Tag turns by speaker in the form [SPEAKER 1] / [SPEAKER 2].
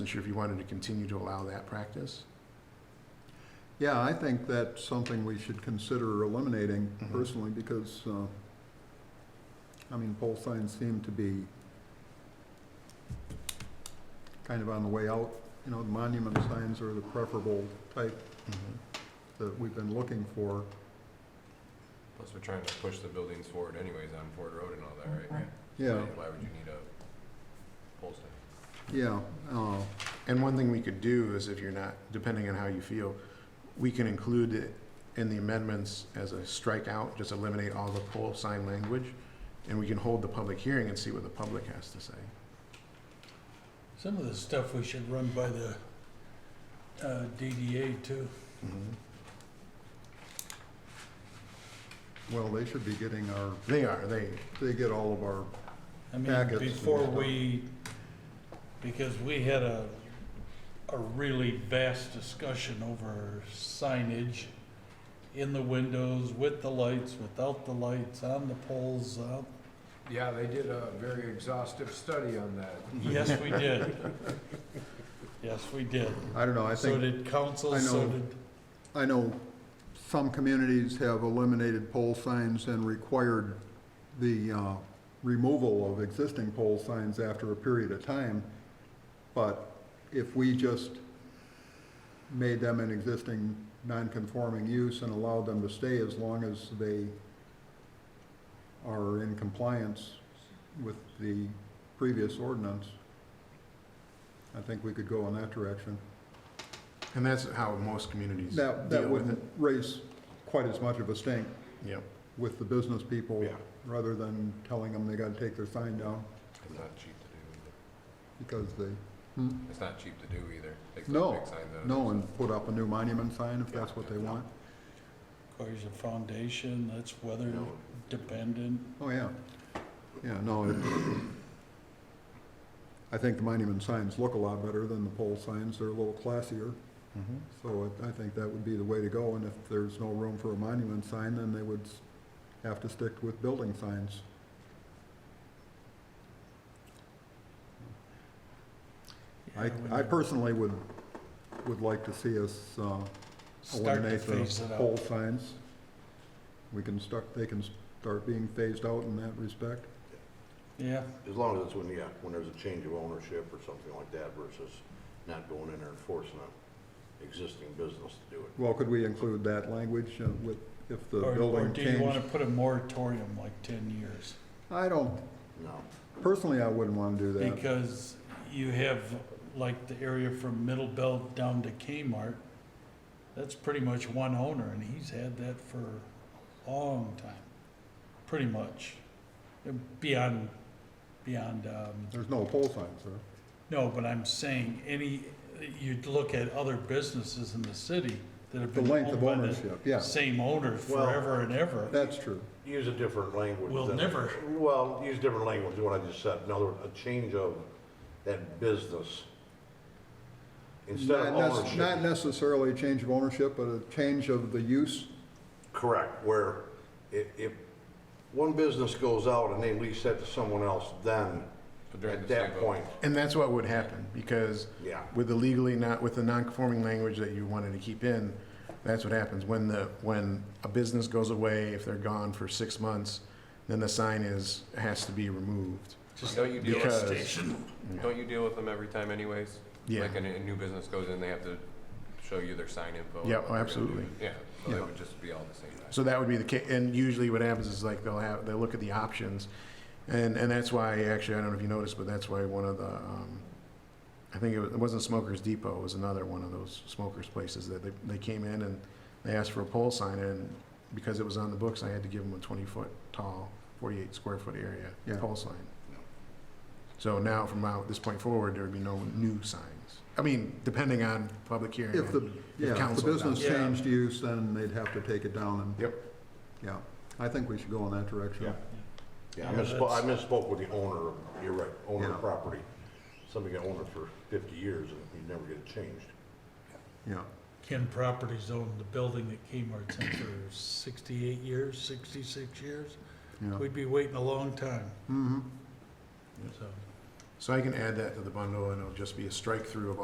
[SPEAKER 1] Not sure if you wanted to continue to allow that practice.
[SPEAKER 2] Yeah, I think that's something we should consider eliminating
[SPEAKER 1] Mhm.
[SPEAKER 2] personally, because, uh, I mean, pole signs seem to be kind of on the way out. You know, the monument signs are the preferable type
[SPEAKER 3] Mm-hmm.
[SPEAKER 2] that we've been looking for.
[SPEAKER 4] Plus, we're trying to push the buildings forward anyways on Ford Road and all that, right?
[SPEAKER 2] Yeah,
[SPEAKER 4] Why would you need a pole stand?
[SPEAKER 2] yeah, uh,
[SPEAKER 1] And one thing we could do is if you're not, depending on how you feel, we can include it in the amendments as a strikeout, just eliminate all the pole sign language, and we can hold the public hearing and see what the public has to say.
[SPEAKER 5] Some of the stuff we should run by the uh, DDA too.
[SPEAKER 3] Mm-hmm.
[SPEAKER 2] well, they should be getting our,
[SPEAKER 1] They are, they,
[SPEAKER 2] they get all of our,
[SPEAKER 5] I mean,
[SPEAKER 2] Packets.
[SPEAKER 5] before we, because we had a, a really vast discussion over signage in the windows, with the lights, without the lights, on the poles, out.
[SPEAKER 4] Yeah, they did a very exhaustive study on that.
[SPEAKER 5] Yes, we did. Yes, we did.
[SPEAKER 2] I don't know, I
[SPEAKER 5] So
[SPEAKER 2] think,
[SPEAKER 5] did council,
[SPEAKER 2] I
[SPEAKER 5] so
[SPEAKER 2] know.
[SPEAKER 5] did,
[SPEAKER 2] I know some communities have eliminated pole signs and required the uh, removal of existing pole signs after a period of time. But if we just made them an existing non-conforming use and allowed them to stay as long as they are in compliance with the previous ordinance, I think we could go in that direction.
[SPEAKER 1] and that's how most communities deal
[SPEAKER 2] That, that
[SPEAKER 1] with it.
[SPEAKER 2] wouldn't raise quite as much of a stink
[SPEAKER 1] Yep.
[SPEAKER 2] with the business
[SPEAKER 3] Oh,
[SPEAKER 2] people,
[SPEAKER 1] Yeah.
[SPEAKER 2] rather than telling them they gotta take their sign down
[SPEAKER 4] It's not cheap to do
[SPEAKER 2] because they,
[SPEAKER 4] either. It's not cheap to do either. Takes those
[SPEAKER 2] No,
[SPEAKER 4] big signs out.
[SPEAKER 2] no, and put up a new monument sign if that's what they want.
[SPEAKER 5] requires a foundation, that's
[SPEAKER 2] Mm-hmm.
[SPEAKER 5] weather
[SPEAKER 4] No.
[SPEAKER 5] dependent.
[SPEAKER 2] Oh, yeah. Yeah, no. it- I think the monument signs look a lot better than the pole signs. They're a little classier. So I- I think that would be the way to go. And if there's no room for a monument sign, then they would s- have to stick with building signs. I,
[SPEAKER 5] Yeah, when
[SPEAKER 2] I
[SPEAKER 5] you
[SPEAKER 2] personally would, would like to see us uh,
[SPEAKER 5] Start to
[SPEAKER 2] eliminate
[SPEAKER 5] phase
[SPEAKER 2] the
[SPEAKER 5] it out.
[SPEAKER 2] pole signs. We can start, they can start being phased out in that respect.
[SPEAKER 5] Yeah,
[SPEAKER 3] As long as it's when, yeah, when there's a change of ownership or something like that versus not going in there and forcing an existing business to do it.
[SPEAKER 2] Well, could we include that language uh, with, if the
[SPEAKER 5] or, or
[SPEAKER 2] building
[SPEAKER 5] do you wanna
[SPEAKER 2] changed?
[SPEAKER 5] put a moratorium like ten years?
[SPEAKER 2] I don't,
[SPEAKER 3] No.
[SPEAKER 2] personally, I wouldn't want to do that.
[SPEAKER 5] Because you have, like, the area from Middle Belt down to Kmart, that's pretty much one owner, and he's had that for a long time, pretty much. Beyond, beyond, um,
[SPEAKER 2] There's no pole signs, sir.
[SPEAKER 5] no, but I'm saying, any, you'd look at other businesses in the city that have
[SPEAKER 2] The
[SPEAKER 5] been
[SPEAKER 2] length
[SPEAKER 5] owned
[SPEAKER 2] of
[SPEAKER 5] by the
[SPEAKER 2] ownership, yeah,
[SPEAKER 5] same owner
[SPEAKER 3] Well,
[SPEAKER 5] forever and ever.
[SPEAKER 2] that's true.
[SPEAKER 3] Use a different language.
[SPEAKER 5] We'll
[SPEAKER 3] than-
[SPEAKER 5] never-
[SPEAKER 3] Well, use different language than what I just said. In other words, a change of that business. Instead
[SPEAKER 2] Not
[SPEAKER 3] of
[SPEAKER 2] nec- Not
[SPEAKER 3] ownership.
[SPEAKER 2] necessarily a change of ownership, but a change of the use.
[SPEAKER 3] Correct, where if, if one business goes out and they lease that to someone else, then
[SPEAKER 4] But during
[SPEAKER 3] at
[SPEAKER 4] the
[SPEAKER 3] that
[SPEAKER 4] same
[SPEAKER 3] point,
[SPEAKER 1] And that's what would happen, because
[SPEAKER 3] yeah.
[SPEAKER 1] with the legally not, with the non-conforming language that you wanted to keep in, that's what happens. When the, when a business goes away, if they're gone for six months, then the sign is, has to be removed.
[SPEAKER 5] Just
[SPEAKER 4] Don't you deal
[SPEAKER 1] because-
[SPEAKER 4] with, don't you deal with them every time anyways?
[SPEAKER 1] Yeah,
[SPEAKER 4] Like, when a new business goes in, they have to show you their sign info. and
[SPEAKER 1] Yeah,
[SPEAKER 4] what they're gonna
[SPEAKER 1] absolutely.
[SPEAKER 4] do. Yeah, so
[SPEAKER 2] Yeah.
[SPEAKER 4] it would just be all the same. time.
[SPEAKER 1] so that would be the case, and usually what happens is like, they'll have, they'll look at the options, and, and that's why, actually, I don't know if you noticed, but that's why one of the, um, I think it was- it wasn't Smokers Depot, it was another one of those smokers places that they, they came in and they asked for a pole sign, and because it was on the books, I had to give them a twenty-foot tall, forty-eight square foot area
[SPEAKER 2] Yeah.
[SPEAKER 1] pole sign. So now, from out, this point forward, there would be no new signs. I mean, depending on public hearing.
[SPEAKER 2] If the, yeah, if the
[SPEAKER 1] council does.
[SPEAKER 2] business
[SPEAKER 5] Yeah.
[SPEAKER 2] changed use, then they'd have to take it down and.
[SPEAKER 1] Yep.
[SPEAKER 2] Yeah, I think we should go in that direction.
[SPEAKER 1] Yeah.
[SPEAKER 3] Yeah, I
[SPEAKER 5] Yeah,
[SPEAKER 3] misspoke, I
[SPEAKER 5] that's-
[SPEAKER 3] misspoke with the owner, of- you're right, owner
[SPEAKER 2] Yeah.
[SPEAKER 3] of property. Somebody got owner for fifty years and you never get it changed.
[SPEAKER 2] Yeah,
[SPEAKER 5] Ken Properties owned the building that Kmart's in for sixty-eight years, sixty-six years.
[SPEAKER 2] yeah.
[SPEAKER 5] We'd be waiting a long time,
[SPEAKER 2] Mm-hmm.
[SPEAKER 5] so.
[SPEAKER 1] So I can add that to the bundle and it'll just be a strike through of